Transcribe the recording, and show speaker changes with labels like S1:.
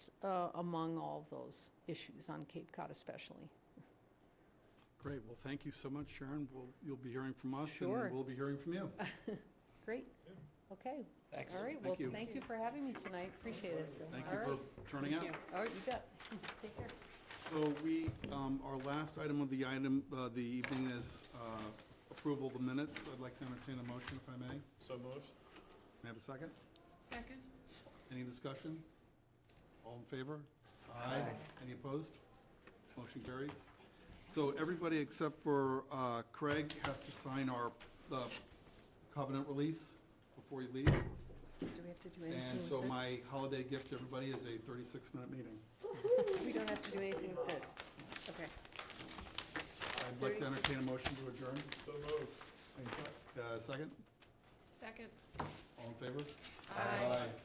S1: uh, among all of those issues on Cape Cod especially.
S2: Great, well, thank you so much, Sharon. We'll, you'll be hearing from us, and
S1: Sure.
S2: we'll be hearing from you.
S1: Great, okay.
S3: Thanks.
S1: All right,
S2: Thank
S1: well,
S2: you.
S1: thank you for having me tonight, appreciate it.
S2: Thank
S1: All
S2: you
S1: right.
S2: for turning out.
S1: All right, you bet. Take care.
S2: So we, um, our last item of the item, uh, the evening is uh, approval of the minutes. I'd like to entertain a motion, if I may. May
S3: So moved.
S2: I have a second?
S4: Second?
S2: Any discussion? All in favor? Aye. Any opposed? Motion carries. So everybody except for uh, Craig has to sign our uh, covenant release before you leave.
S4: Do we have to do
S2: And
S4: anything
S2: so
S4: with
S2: my holiday gift to everybody is a 36-minute meeting.
S4: this? We don't have to do anything with this? Okay.
S2: I'd like to entertain a motion to adjourn.
S3: So moved.
S2: Uh, Second?
S4: Second.
S2: All in favor?
S4: Aye.